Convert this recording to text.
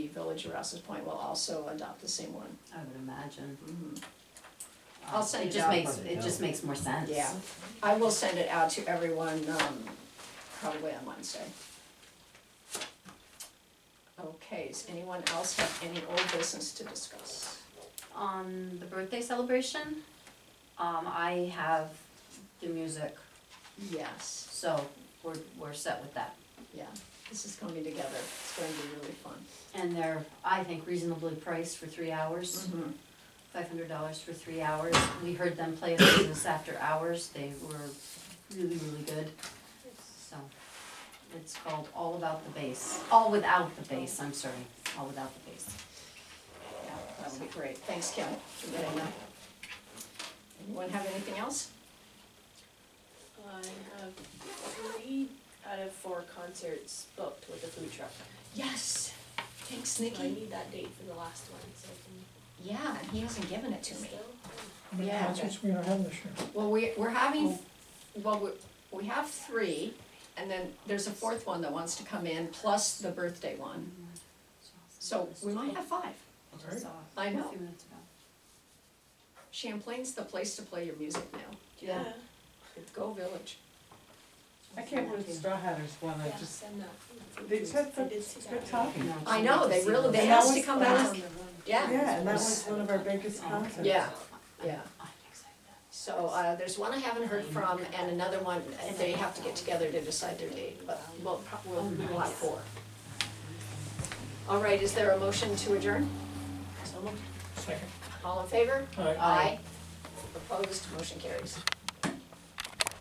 Village of Rouse's Point will also adopt the same one. I would imagine. I'll send It it just out. makes, it just makes more sense. Yeah, I will send it out to everyone, um, probably on Wednesday. Okay, does anyone else have any old business to discuss? On the birthday celebration, um, I have the music, Yes, so we're, we're set with that. yeah, this is coming together, it's going to be really fun. And they're, I think reasonably priced for three hours, Mm-hmm. five hundred dollars for three hours. We heard them play at business after hours, they were really, really good, so. It's called All About the Bass, All Without the Bass, I'm sorry, All Without the Bass. Yeah, that would be great, thanks Kim for getting that. Anyone have anything else? I have three out of four concerts booked with the food truck. Yes, thanks I need that date for the last one, so I Yeah, and he hasn't given it to can me. still. How many Yeah. concerts we are having this year? Well, we, we're having, well, we, we have three, and then there's a fourth one that wants to come in, plus the birthday one. So we might have five. Alright. I know. A few minutes ago. Champlain's the place to play your music now. Yeah. Go Village. I can't believe the Straw Hatters won, I Yeah, just, send that. they said I such did see good that. talking. No, it's I know, good to they see really, those. they And asked that to was come the out, last- yeah, Yeah, and that was one of our biggest concerts. yeah, I'm- yeah. I'm excited. So, uh, there's one I haven't heard from, and another one, and they have to get together to decide their date, but we'll, prob- we'll, we'll have four. All right, is there a motion to adjourn? Second. All in favor? All right. Aye. Opposed, motion carries.